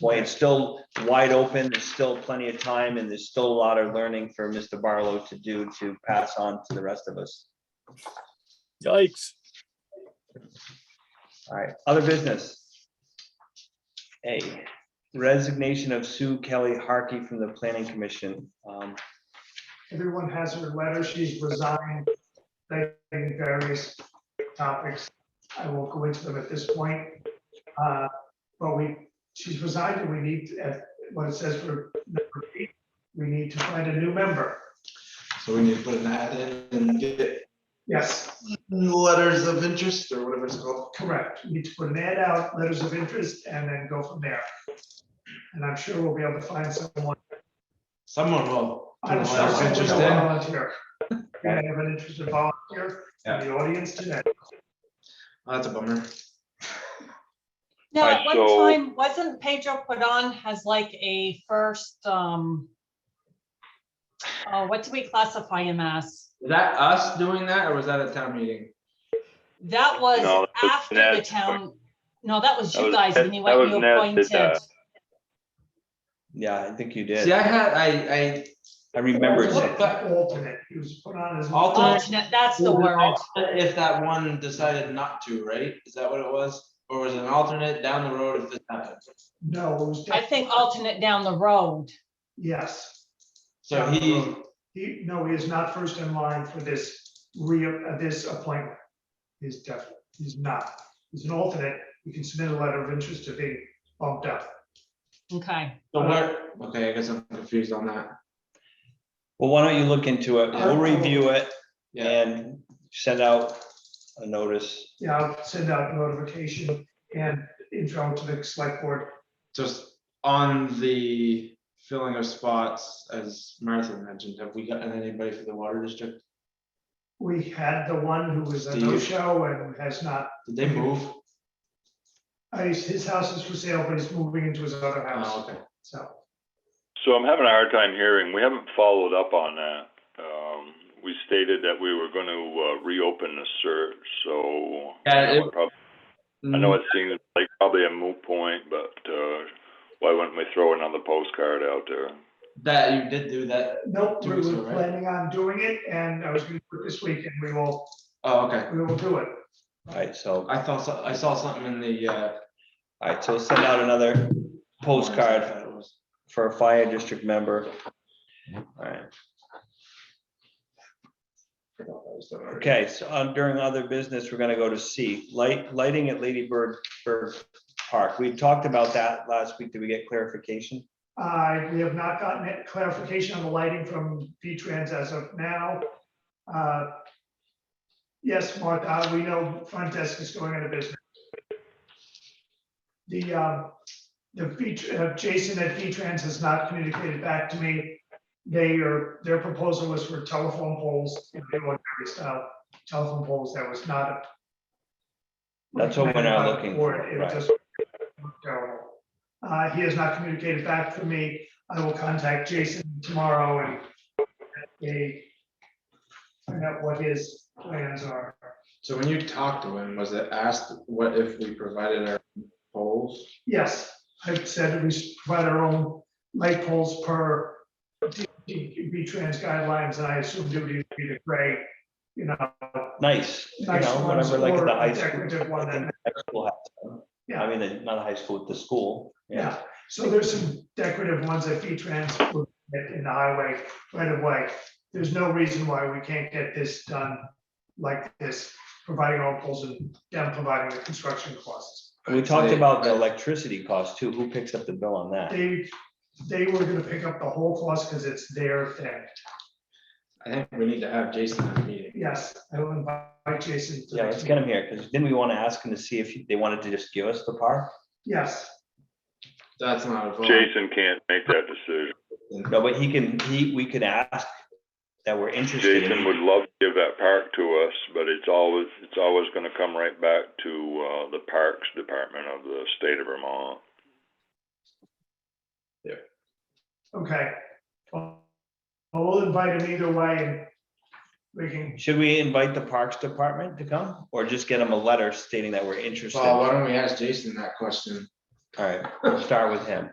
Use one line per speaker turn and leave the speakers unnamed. boy, it's still wide open, there's still plenty of time, and there's still a lot of learning for Mr. Barlow to do to pass on to the rest of us.
Yikes.
All right, other business. A resignation of Sue Kelly Harkey from the Planning Commission. Um,
Everyone has her letter. She's resigned, citing various topics. I won't go into them at this point. Uh, But we, she's resigned and we need, to- as what it says for number eight, we need to find a new member.
So we need to put an ad in and get
Yes,
letters of interest or whatever it's called.
correct. We need to put an ad out, letters of interest, and then go from there. And I'm sure we'll be able to find someone.
Someone will. put a
I'm
letter
sure
of
someone
interest
will
in.
volunteer. We have an interested volunteer in the audience today.
Oh, That's a bummer.
No,
I
at one
so-
time, wasn't Pedro Cordon has like a first, um, oh, what do we classify him as?
Was that us doing that or was that a town meeting?
That was
No, that was
after
Ned.
the town, no, that was
That
you
was
guys
Ned-
when you
that
went,
was uh,
you
Ned did
appointed.
that.
yeah, I think you
See,
did.
I had, I, I,
I remember it. saying-
But alternate, he was put on as. an
Alternate.
Alternate, that's the word.
if that one decided not to, right? Is that what it was? Or was it an alternate down the road if this happens?
No, it was.
I think alternate down the road.
Yes,
So he,
he, no, he is not first in line for this re, uh, this appointment. He's definitely, he's not. He's an alternate. You can submit a letter of interest to be bumped up.
Okay,
so where, okay, I guess I'm confused on that.
Well, why don't you look into it? We'll review it
Uh, Yeah,
and send out a notice.
Yeah, I'll send out notification and intro to the select board.
just on the filling of spots, as Martha mentioned, have we gotten anybody for the water district?
We had the one who was a no-show and has not,
Did they move?
uh, his his house is for sale, but he's moving into his other
Oh,
house,
okay.
so.
So I'm having a hard time hearing. We haven't followed up on that. Um, we stated that we were going to uh, reopen the search, so
Yeah,
I know,
it-
it prob- I know it seems like probably a moot point, but uh, why wouldn't we throw another postcard out there?
Mm, That you did do that.
Nope,
Two
we
weeks
were
ago, right?
planning on doing it and I was gonna do it this week and we will,
Oh, okay.
we will do it.
All right, so, all
I thought, so- I saw something in the, uh.
right, so send out another
I
postcard
thought it was-
for a fire district member. All right,
I thought that was the word.
okay, so uh, during other business, we're gonna go to C, light, lighting at Lady Bird, Bird Park. We talked about that last week. Did we get clarification?
Uh, we have not gotten it- clarification on the lighting from V-Trans as of now. Uh, Yes, Mark, uh, we know front desk is going out of business. The, um, the V- uh, Jason at V-Trans has not communicated back to me. They are, their proposal was for telephone poles, and they want every style telephone poles. That was not. a-
That's what we're now looking for,
It
right.
just looked terrible. Uh, he has not communicated back to me. I will contact Jason tomorrow and uh, they find out what his plans are.
So when you talked to him, was it asked what if we provided our polls?
Yes, I've said that we provide our own light poles per B-Trans guidelines, and I assume duty would be the gray, you know,
Nice, you
Nice
know,
ones
whatever, like at the
or
high school.
decorative one
I think
that-
high school has some.
Yeah.
I mean, the- not high school, the school.
yeah. So there's some decorative ones that V-Trans would get in the highway right away. There's no reason why we can't get this done like this, providing our own poles and them providing the construction costs.
And we talked
They-
about the electricity cost too. Who picks up the bill on that?
They, they were gonna pick up the whole cost because it's their thing.
I think we need to have Jason in the meeting.
Yes, I will invite Jason. to
Yeah,
the
let's get him here, because didn't we want to ask him to see if they wanted to just give us the park?
Yes,
That's not a vote.
Jason can't make that decision.
No, but he can, he, we could ask that we're interested.
Jason would
in-
love to give that park to us, but it's always it's always going to come right back to uh, the Parks Department of the state of Vermont.
okay. Well, We'll invite him either way and we can,
Should we invite the Parks Department to come or just get him a letter stating that we're interested?
Well,
All
why don't we ask Jason that question?
right, we'll start with him.